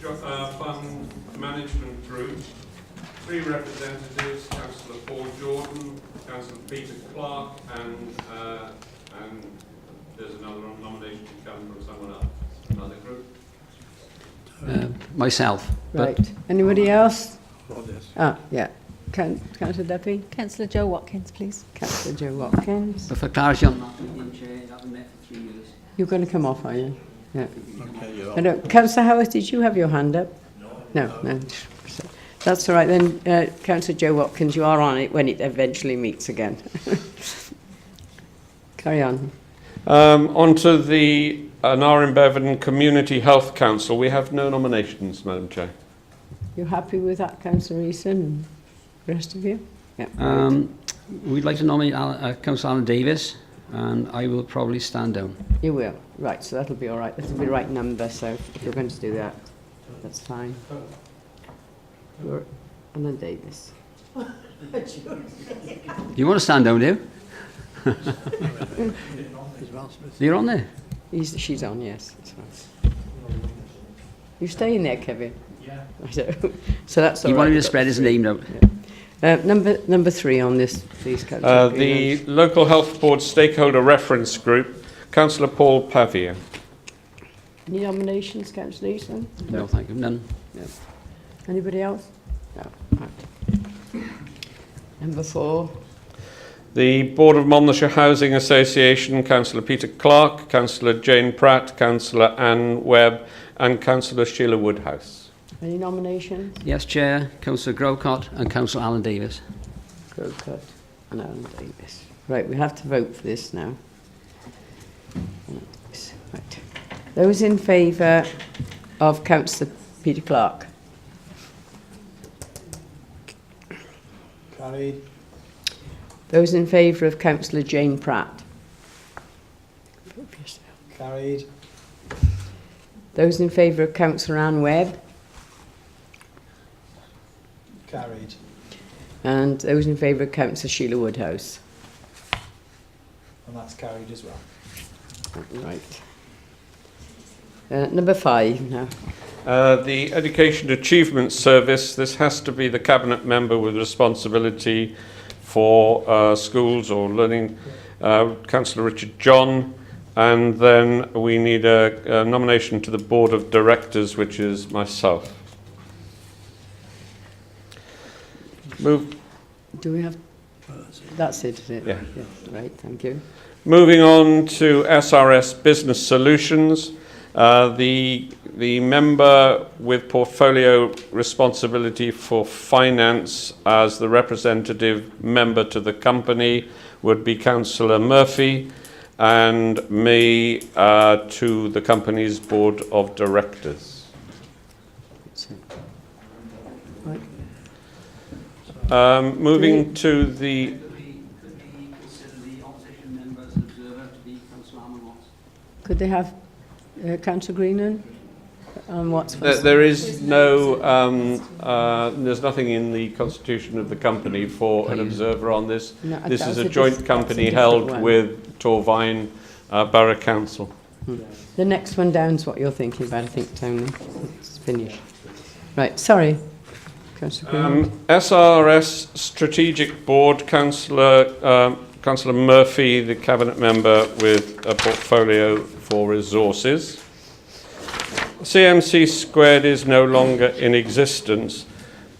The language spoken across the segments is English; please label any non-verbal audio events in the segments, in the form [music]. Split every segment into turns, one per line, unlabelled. jo- uh, Fund Management Group, three representatives, councillor Paul Jordan, councillor Peter Clark, and, uh, and there's another nomination to come from someone else, another group.
uh, myself. But
Right. Anybody else?
Not this.
Ah, yeah. Coun- Councillor Duffy,
Councillor Joe Watkins, please.
Councillor Joe Watkins.
but for clarity on that,
You're going to come off, are you? Yeah.
Okay, you're
I know. Councillor Howard, did you have your hand up? No. No, That's all right then. Uh, Councillor Joe Watkins, you are on it when it eventually meets again. [laughs] Carry on.
Um, on to the Narren Bevan Community Health Council. We have no nominations, Madam Chair.
You happy with that, Councillor Eason and the rest of you? Yeah.
um, we'd like to nominate Alan, uh, Councillor Alan Davis, and I will probably stand down.
You will. Right, so that'll be all right. That'll be right number, so if you're going to do that, that's fine. You're Alan Davis.
You want to stand down, do
[laughs]
you?
As well, Smith.
You're on there.
He's, she's on, yes. That's right. You staying there, Kevin? Yeah. [laughs] So that's all
he
right.
wanted me
we've
to
got
spread his
three.
name out.
Uh, number, number three on this, please, Councillor
Uh,
Greenwood.
the Local Health Board Stakeholder Reference Group, councillor Paul Pavia.
Any nominations, Councillor Easton?
No, thank you. None.
Anybody else? No. Right. Number four,
The Board of Monmouthshire Housing Association, Councillor Peter Clark, Councillor Jane Pratt, Councillor Anne Webb and Councillor Sheila Woodhouse.
any nominations?
Yes, Chair, Councillor Grocott and Councillor Alan Davis.
Crowcutt and Alan Davis. Right, we have to vote for this now. Right. Those in favour of Councillor Peter Clark?
Carried.
Those in favour of Councillor Jane Pratt?
Carried.
Those in favour of Councillor Anne Webb?
Carried.
And those in favour of Councillor Sheila Woodhouse?
And that's carried as well.
Right. Uh, number five now.
Uh, the Education Achievement Service, this has to be the Cabinet member with responsibility for uh, schools or learning, uh, Councillor Richard John. And then we need a, a nomination to the Board of Directors, which is myself. Move,
Do we have... That's it, is it?
Yeah.
Right, thank you.
Moving on to SRS Business Solutions, uh, the, the member with portfolio responsibility for finance as the representative member to the company would be Councillor Murphy and me uh, to the company's board of directors.
That's it. Right.
Um, moving to the,
Could we, could we consider the opposition member as an observer to be Councillor Almond Watts?
Could they have uh, Councillor Greenan? And what's
there- there is no, um, uh, there's nothing in the constitution of the company for an observer on this.
No, I-
This
that
is
was
a
dis- that's
joint
a
company
different
held
one.
with Torvine uh, Borough Council.
The next one down's what you're thinking about, I think, Tony. It's finished. Right, sorry. Councillor Greenan.
Um, SRS Strategic Board, councillor, um, councillor Murphy, the cabinet member with a portfolio for resources. CMC squared is no longer in existence,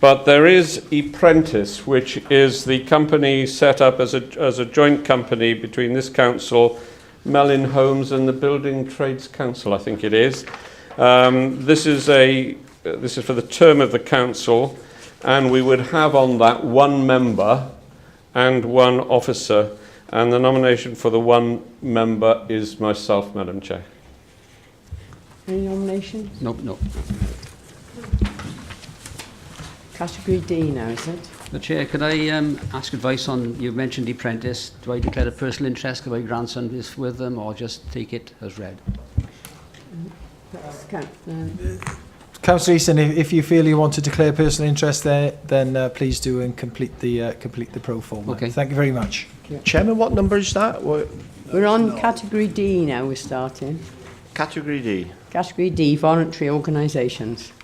but there is Apprentice, which is the company set up as a, as a joint company between this council, Mellin Homes and the Building Trades Council, I think it is. Um, this is a, this is for the term of the council, and we would have on that one member and one officer, and the nomination for the one member is myself, Madam Chair.
Any nominations?
Nope, nope.
Category D now, is it?
The Chair, could I um, ask advice on, you mentioned the apprentice. Do I declare a personal interest because my grandson is with them or just take it as read?
That's count- no.
Councillor Easton, if, if you feel you want to declare personal interest there, then uh, please do and complete the uh, complete the pro form.
Okay.
Thank you very much.
Chairman, what number is that? What
We're on category D now, we're starting.
category D?
Category D, voluntary organisations.